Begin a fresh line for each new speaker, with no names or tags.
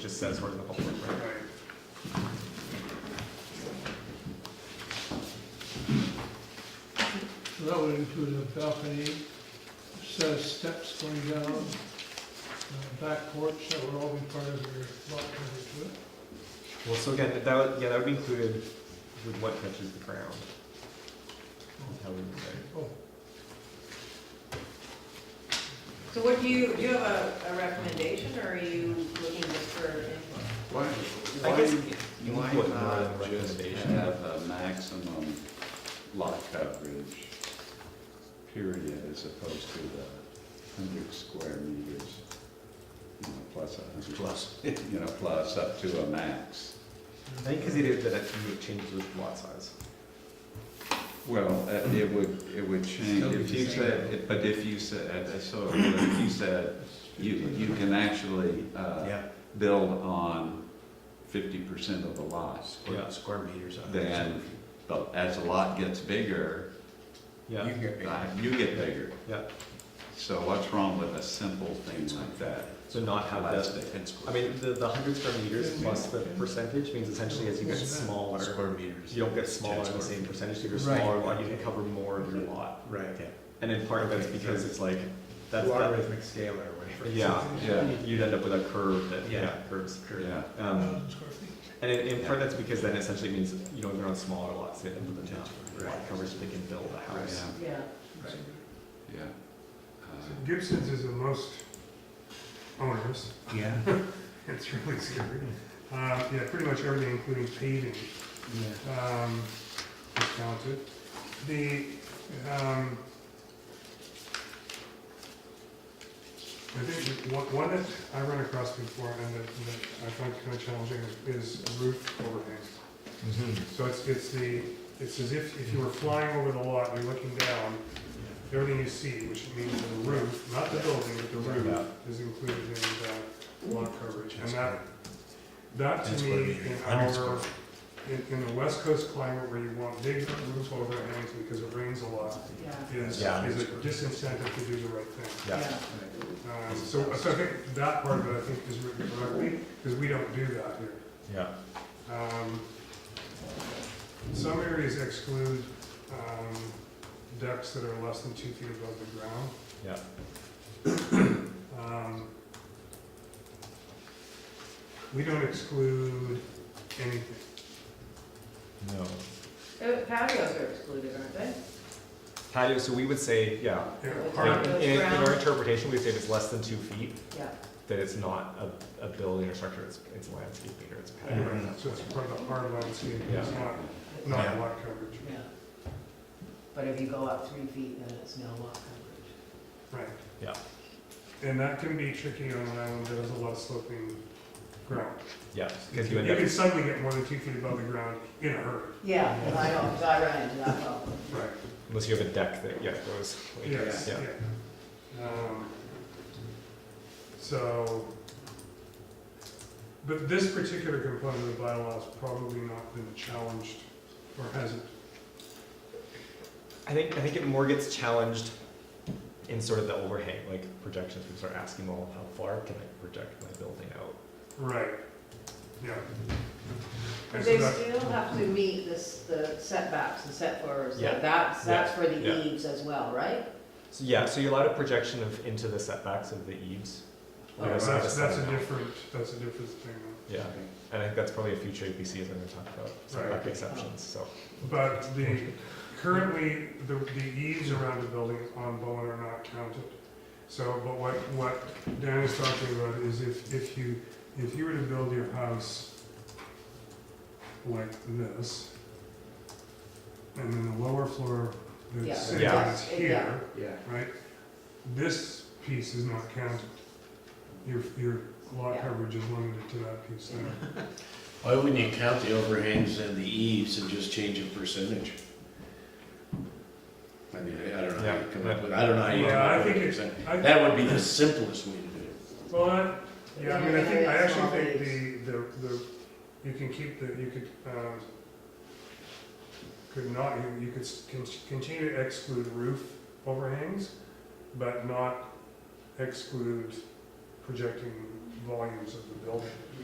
just says where the public, right?
So That would include a balcony, set of steps going down, uh, back porch, that would all be part of your lot coverage, would it?
Well, so again, that would, yeah, that would be included with what touches the ground. That's how we would say.
Oh,
So what do you, do you have a, a recommendation, or are you looking just for input?
Why,
I
why,
guess
why
input
not
word
just
recommendation.
have a maximum lot coverage period as opposed to the hundred square meters? You know, plus a hundred. Plus. You know, plus up to a max.
I think because it is that it would change with lot size.
Well, uh, it would, it would change,
Still be
if you
the same.
said, it- but if you said, I saw, it, but if you said, you, you can actually, uh,
Yeah,
build on fifty percent of the lot.
Yeah.
square, square meters. I think.
Then, but as the lot gets bigger,
You
Yeah,
can get
Uh,
bigger.
You get bigger.
yeah.
So what's wrong with a simple thing like that?
So not have
That's
that.
the-
Ten
I
square.
mean, the, the hundred square meters plus the percentage means essentially as you get smaller,
Square meters.
you don't get smaller in the same percentage, if you're smaller lot, you can cover more of your lot.
Right.
And in part, that's because it's like, that's, that,
Logarithmic scale or whatever.
yeah,
Yeah,
you'd end up with a curve that,
Yeah.
yeah, curves. curve.
yeah.
Um,
thousand square feet.
And in, in part, that's because then essentially means, you know, they're on smaller lots, they have the town, lot
Right.
coverage, they can build a house.
Yeah,
Yeah.
yeah. Uh,
Gibson's is the most onerous.
Yeah.
It's really scary. Uh, yeah, pretty much everything, including paving, um, is counted. The, um, I think the one, one that I ran across before and that, that I find kind of challenging is is roof overhang. So it's, it's the, it's as if, if you were flying over the lot, and you're looking down, everything you see, which means the roof, not the building, but the
Yeah.
roof is included in the lot coverage. And that, that
Ten
to
square
me,
meters,
in
100 square
our, in, in the west coast climate where you want big roof overhangs because it rains a lot,
Yeah.
is, is a
Yeah.
disincentive to do the right thing.
Yeah,
Um, so, so I think that part of it, I think, is written correctly, because we don't do that here.
yeah.
Um, Some areas exclude um, decks that are less than two feet above the ground.
Yeah.
Um, We don't exclude anything.
No.
Uh, Patios are excluded, aren't they?
Patio, so we would say, yeah,
Yeah,
Like
part of-
in, in in our interpretation, we say if it's less than two feet,
Yeah.
that it's not a, a building or structure, it's, it's landscaping or it's patio.
anyway, So it's part of the hard landscape, it's
Yeah.
not, not
Yeah.
lot coverage.
Yeah. But if you go up three feet, then it's no lot coverage.
Right.
Yeah.
And that can be tricky on an island that has a lot of sloping ground.
Yeah,
You
because you end up,
can suddenly get more than two feet above the ground in a hurry.
Yeah, I know, 'cause I run into that problem.
Right.
unless you have a deck that, yeah, goes like
Yes,
this, yeah.
yeah. Um, So, but this particular component of the bylaw has probably not been challenged, or hasn't.
I think, I think it more gets challenged in sort of the overhang, like projections, we start asking, well, how far can I project my building out?
Right, yeah.
But
And
they
so that-
still have to meet this, the setbacks and set forwards,
Yeah.
like that's, that's for
Yeah.
the eaves as well, right?
So yeah, so you allowed a projection of into the setbacks of the eaves.
oh,
Yeah, so
That's,
that's-
that's a different, that's a different thing.
Yeah, and I think that's probably a future APC is going to talk about setback
Right.
exceptions. So
But the, currently, the, the eaves around the building on Bowen are not counted. So, but what, what Dan is talking about is if, if you, if you were to build your house like this, and then the lower floor
Yeah,
that's sitting
Yeah.
is
yeah.
here,
Yeah.
right? This piece is not counted. Your, your lot
Yeah.
coverage is limited to that piece there.
Why wouldn't you count the overhangs and the eaves and just change a percentage? I mean, I I don't know how you come up with, I don't know how you come
Yeah, I
up with a
think it-
percent.
I-
That would be the simplest way to do it.
Well, I- yeah, I mean, I think, I actually
Small
think
leaves.
the, the, the, you can keep the, you could, um, could not, you, you could s- con- continue to exclude roof overhangs, but not exclude projecting volumes of the building.